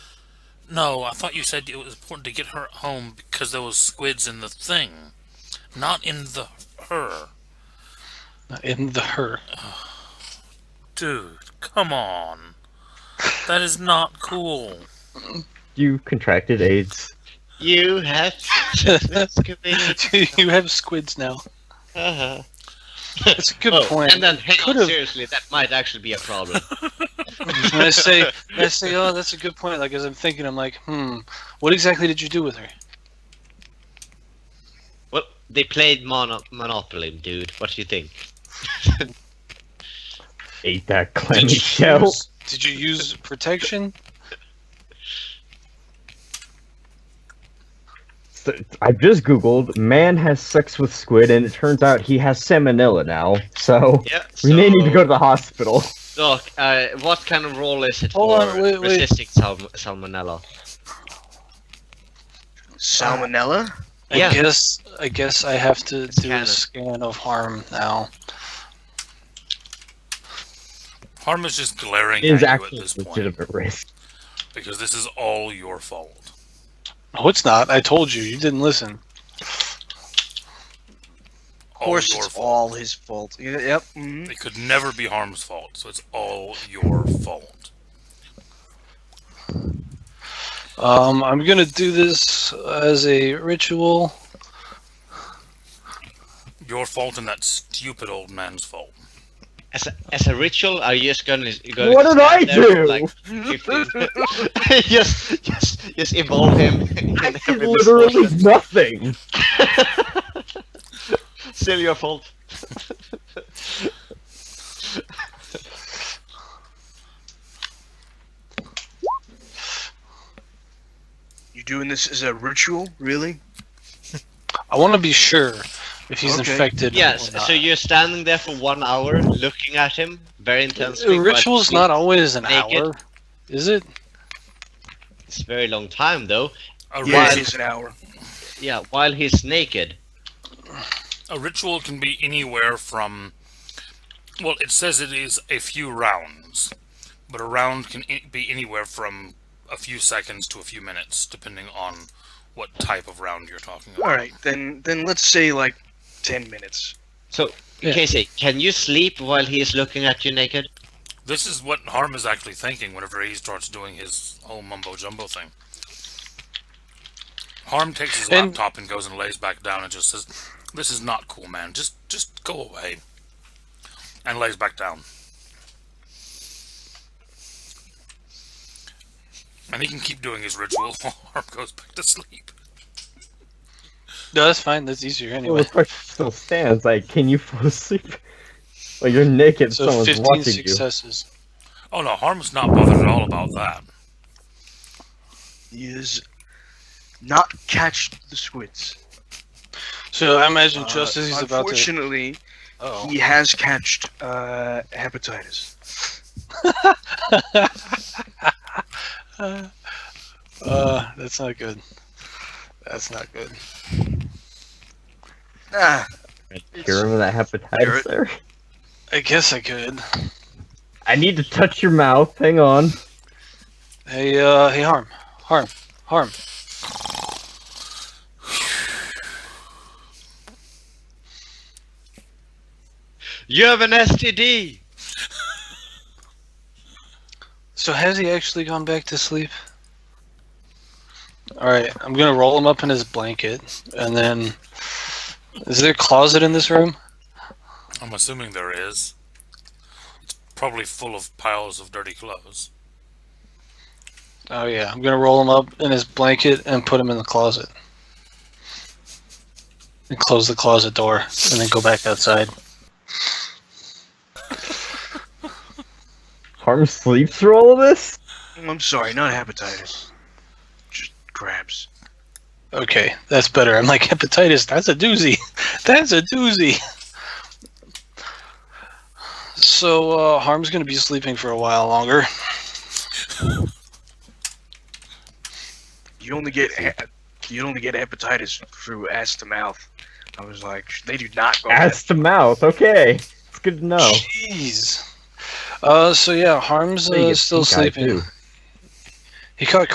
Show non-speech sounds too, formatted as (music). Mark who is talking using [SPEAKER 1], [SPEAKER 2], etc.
[SPEAKER 1] No, I thought you said it was important to get her home because there was squids in the thing, not in the her.
[SPEAKER 2] Not in the her. (laughs)
[SPEAKER 1] Dude, come on. That is not cool.
[SPEAKER 3] You contracted AIDS.
[SPEAKER 4] You have
[SPEAKER 3] (laughs)
[SPEAKER 4] excavated.
[SPEAKER 2] you have squids now.
[SPEAKER 4] Uh-huh.
[SPEAKER 2] That's a good
[SPEAKER 4] oh,
[SPEAKER 2] point.
[SPEAKER 4] And then, hey,
[SPEAKER 2] Could
[SPEAKER 4] on,
[SPEAKER 2] have-
[SPEAKER 4] seriously, that might actually be a
[SPEAKER 3] (laughs)
[SPEAKER 4] problem.
[SPEAKER 2] when I say, when I say, oh, that's a good point. Like as I'm thinking, I'm like, hmm, what exactly did you do with her?
[SPEAKER 4] well, they played mono- Monopoly, dude. What do you think?
[SPEAKER 3] Ate that clammy
[SPEAKER 2] did, you
[SPEAKER 3] shell.
[SPEAKER 2] Use, did you use protection?
[SPEAKER 3] So, I've just googled man has sex with squid, and it turns out he has salmonella now. So
[SPEAKER 4] Yeah.
[SPEAKER 3] we may need to go to the hospital.
[SPEAKER 4] Doc, uh, what kind of role is it
[SPEAKER 2] Hold
[SPEAKER 4] for
[SPEAKER 2] on, wait, wait.
[SPEAKER 4] resisting sal- salmonella?
[SPEAKER 5] Salmonella?
[SPEAKER 2] I
[SPEAKER 4] Yeah.
[SPEAKER 2] guess I guess I have to do
[SPEAKER 4] canon.
[SPEAKER 2] a scan of harm now.
[SPEAKER 1] Harm is just glaring
[SPEAKER 3] It
[SPEAKER 1] at
[SPEAKER 3] is
[SPEAKER 1] you at
[SPEAKER 3] actually
[SPEAKER 1] this
[SPEAKER 3] a
[SPEAKER 1] point
[SPEAKER 3] legitimate risk.
[SPEAKER 1] because this is all your fault.
[SPEAKER 2] No, it's not. I told you. You didn't listen.
[SPEAKER 5] Of
[SPEAKER 1] All
[SPEAKER 5] course,
[SPEAKER 1] your
[SPEAKER 5] it's
[SPEAKER 1] fault.
[SPEAKER 5] all his fault. Y- Yep. mhm.
[SPEAKER 1] It could never be Harm's fault, so it's all your fault.
[SPEAKER 2] Um, I'm gonna do this as a ritual.
[SPEAKER 1] Your fault and that stupid old man's fault.
[SPEAKER 4] As a, as a ritual, are you just gonna? gonna
[SPEAKER 3] What did
[SPEAKER 4] stand
[SPEAKER 3] I
[SPEAKER 4] there for,
[SPEAKER 3] do?
[SPEAKER 4] Like
[SPEAKER 3] (laughs)
[SPEAKER 4] 15 (laughs) just, just, just involve him. (laughs) In
[SPEAKER 3] I did
[SPEAKER 4] every
[SPEAKER 3] literally (laughs)
[SPEAKER 4] misfortune.
[SPEAKER 3] nothing.
[SPEAKER 4] Still your fault.
[SPEAKER 5] You doing this as a ritual? Really?
[SPEAKER 2] I want to be sure if he's
[SPEAKER 5] Okay.
[SPEAKER 2] infected.
[SPEAKER 4] Yes.
[SPEAKER 2] Or not.
[SPEAKER 4] So you're standing there for one hour, looking at him very intensely.
[SPEAKER 2] A
[SPEAKER 4] but
[SPEAKER 2] ritual's not always an
[SPEAKER 4] naked.
[SPEAKER 2] hour, is it?
[SPEAKER 4] It's a very long time though.
[SPEAKER 1] A,
[SPEAKER 5] Yeah,
[SPEAKER 1] rit-
[SPEAKER 5] it is an hour.
[SPEAKER 4] Yeah, while he's naked.
[SPEAKER 1] a ritual can be anywhere from. Well, it says it is a few rounds, but a round can i- be anywhere from a few seconds to a few minutes, depending on what type of round you're talking about.
[SPEAKER 5] All right, then then let's say like ten minutes.
[SPEAKER 4] So
[SPEAKER 2] Yeah.
[SPEAKER 4] Casey, can you sleep while he is looking at you naked?
[SPEAKER 1] This is what Harm is actually thinking whenever he starts doing his whole mumbo jumbo thing. Harm takes his
[SPEAKER 2] And-
[SPEAKER 1] laptop and goes and lays back down and just says, "This is not cool, man. Just, just go away." And lays back down. And he can keep doing his ritual (laughs) while Harm goes back to sleep.
[SPEAKER 2] No, that's fine. That's easier
[SPEAKER 3] Well,
[SPEAKER 2] anyway.
[SPEAKER 3] the question still stands. Like, can you fall asleep? Like, you're naked.
[SPEAKER 2] So
[SPEAKER 3] someone's
[SPEAKER 2] 15
[SPEAKER 3] watching you.
[SPEAKER 2] successes.
[SPEAKER 1] Oh no, Harm's not bothered at all about that.
[SPEAKER 5] He is not catch the squids.
[SPEAKER 2] So I imagine
[SPEAKER 5] Uh,
[SPEAKER 2] just as he's about to.
[SPEAKER 5] unfortunately,
[SPEAKER 2] Oh.
[SPEAKER 5] he has catched uh, hepatitis.
[SPEAKER 2] Uh, that's not good. That's not good.
[SPEAKER 5] Ah,
[SPEAKER 3] You remember that hepatitis
[SPEAKER 5] Garrett.
[SPEAKER 3] there?
[SPEAKER 2] I guess I could.
[SPEAKER 3] I need to touch your mouth. Hang on.
[SPEAKER 2] Hey, uh, hey, harm, harm, harm.
[SPEAKER 4] You have an STD.
[SPEAKER 2] So has he actually gone back to sleep? All right, I'm gonna roll him up in his blanket, and then. Is there a closet in this room?
[SPEAKER 1] I'm assuming there is. It's probably full of piles of dirty clothes.
[SPEAKER 2] Oh yeah, I'm gonna roll him up in his blanket and put him in the closet. And close the closet door, and then go back outside.
[SPEAKER 3] Harm sleep through all of this?
[SPEAKER 5] I'm sorry, not hepatitis. Just crabs.
[SPEAKER 2] Okay, that's better. I'm like hepatitis. That's a doozy. (laughs) That's a doozy. So uh, Harm's gonna be sleeping for a while longer.
[SPEAKER 5] You only get he- you only get hepatitis through ass to mouth. I was like, they do not go.
[SPEAKER 3] Ass to mouth. Okay. It's good to know.
[SPEAKER 2] Jeez. Uh, so yeah, Harm's
[SPEAKER 3] Hey, you
[SPEAKER 2] uh, still
[SPEAKER 3] pink eye,
[SPEAKER 2] sleeping.
[SPEAKER 3] too.
[SPEAKER 2] He caught